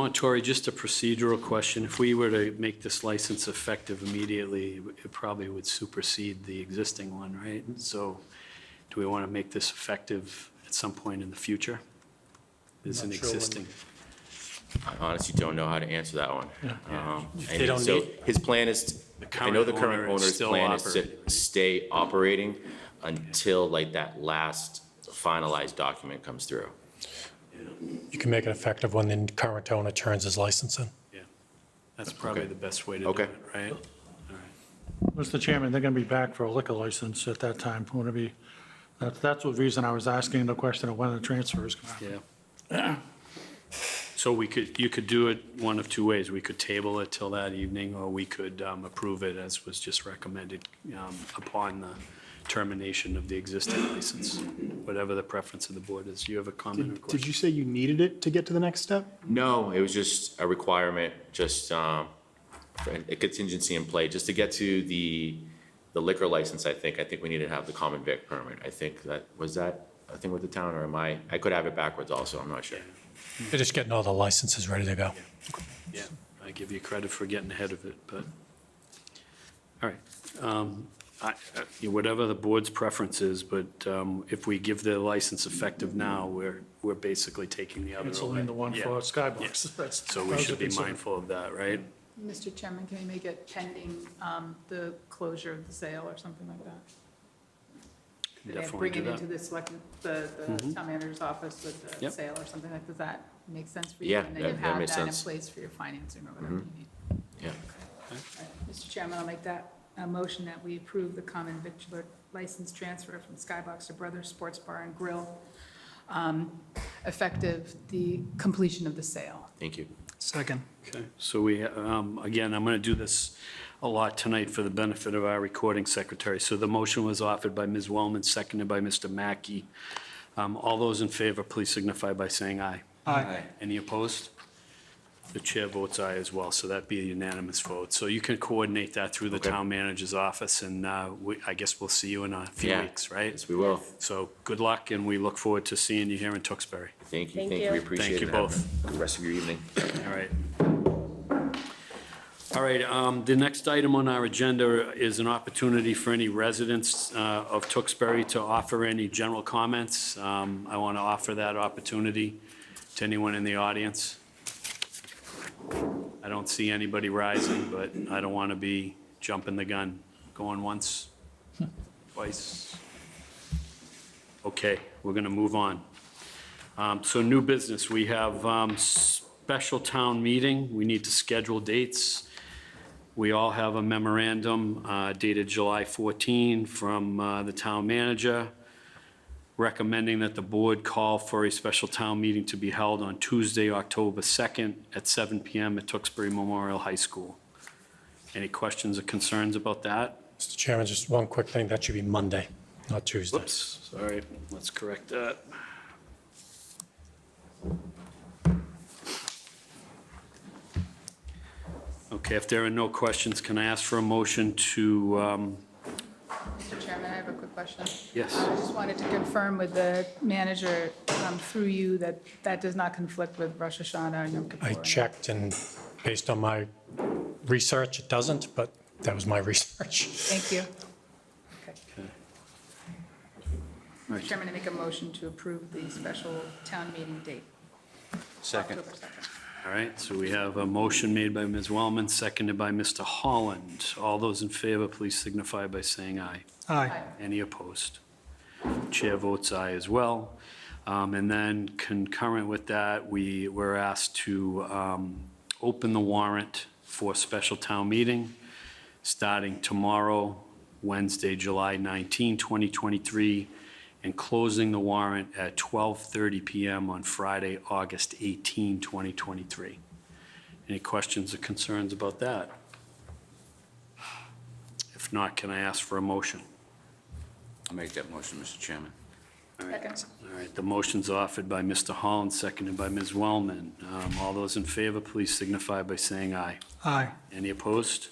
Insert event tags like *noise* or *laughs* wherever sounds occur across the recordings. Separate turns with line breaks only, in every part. Montori, just a procedural question. If we were to make this license effective immediately, it probably would supersede the existing one, right? So do we want to make this effective at some point in the future? Is an
Not sure when.
existing,
I honestly don't know how to answer that one. Um,
They
And
don't
so
need-
his plan is,
The
I know the
current
current
owner is
owner's
still
plan is to stay operating until like that last finalized document comes through.
You can make it effective when the current owner turns his license in.
yeah. That's probably
Okay.
the best way to do
Okay.
it, right?
Mr. Chairman, they're going to be back for a liquor license at that time. Going to be, that's, that's the reason I was asking the question of when the transfer is going to happen.
Yeah. *clears throat* So we could, you could do it one of two ways. We could table it till that evening, or we could um, approve it as was just recommended um, upon the termination of the existing license, whatever the preference of the board is. You have a comment or
Did did
question?
you say you needed it to get to the next step?
No, it was just a requirement, just um, for a contingency in play, just to get to the, the liquor license, I think. I think we need to have the common vic permit. I think that, was that a thing with the town or am I, I could have it backwards also, I'm not sure.
They're just getting all the licenses ready to go.
Yeah, I give you credit for getting ahead of it, but, all right. Um, I- I- Whatever the board's preference is, but um, if we give the license effective now, we're, we're basically taking the other away.
Canceling the one
Yeah.
for
Yes.
Skybox. That's-
So
that
we
was
should
a
be
concern.
mindful of that, right?
Mr. Chairman, can we make it pending um, the closure of the sale or something like that?
Can
And
Definitely
Bring
do
it into
that.
the select, the
Mm-hmm.
the town manager's office with the
Yep.
sale or something like, does that make sense for you?
Yeah,
And then
that-
you
that
have
makes
that in
sense. Mm-hmm.
place for your financing or whatever you need.
Yeah.
All right. Mr. Chairman, I'll make that a motion that we approve the common victular license transfer from Skybox to Brothers Sports Bar and Grill, um, effective the completion of the sale.
Thank you.
Second.
Okay, so we, um, again, I'm going to do this a lot tonight for the benefit of our recording secretary. So the motion was offered by Ms. Wellman, seconded by Mr. Mackey. Um, All those in favor, please signify by saying aye. Aye. Any opposed? The chair votes aye as well, so that'd be a unanimous vote. So you can coordinate that through the
Okay.
town manager's office, and uh, we- I guess we'll see you in a few
Yeah.
weeks, right?
Yes, we will.
So good luck, and we look forward to seeing you here in Tewksbury.
Thank you,
Thank
thank you,
you.
we
Thank
appreciate it.
you
Have a
both.
Good rest of your evening.
All right. All right, um, the next item on our agenda is an opportunity for any residents uh, of Tewksbury to offer any general comments. Um, I want to offer that opportunity to anyone in the audience. I don't see anybody rising, but I don't want to be jumping the gun, going once, twice. Okay, we're going to move on. Um, So new business, we have um, special town meeting, we need to schedule dates. We all have a memorandum uh, dated July 14 from uh, the town manager recommending that the board call for a special town meeting to be held on Tuesday, October 2nd at 7 PM at Tewksbury Memorial High School. Any questions or concerns about that?
Mr. Chairman, just one quick thing, that should be Monday, not Tuesday.
Whoops, sorry, let's correct that. Okay, if there are no questions, can I ask for a motion to, um,
Mr. Chairman, I have a quick question.
Yes.
I just wanted to confirm with the manager um, through you that that does not conflict with Rosh Hashanah and Yom Kippur.
I checked, and based on my research, it doesn't, but that was my *laughs* research.
Thank you. Okay. Mr. Chairman, I make a motion to approve the special town meeting date. Second.
all right, so we have a motion made by Ms. Wellman, seconded by Mr. Holland. All those in favor, please signify by saying aye.
Aye.
Any opposed? Chair votes aye as well. Um, And then concurrent with that, we were asked to um, open the warrant for special town meeting starting tomorrow, Wednesday, July 19, 2023, and closing the warrant at 12:30 PM on Friday, August 18, 2023. Any questions or concerns about that? If not, can I ask for a motion?
I'll make that motion, Mr. Chairman.
Second.
All right, the motion's offered by Mr. Holland, seconded by Ms. Wellman. Um, All those in favor, please signify by saying aye.
Aye.
Any opposed?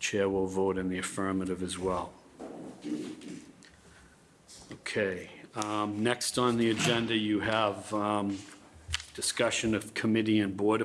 Chair will vote in the affirmative as well. Okay, um, next on the agenda, you have um, discussion of committee and board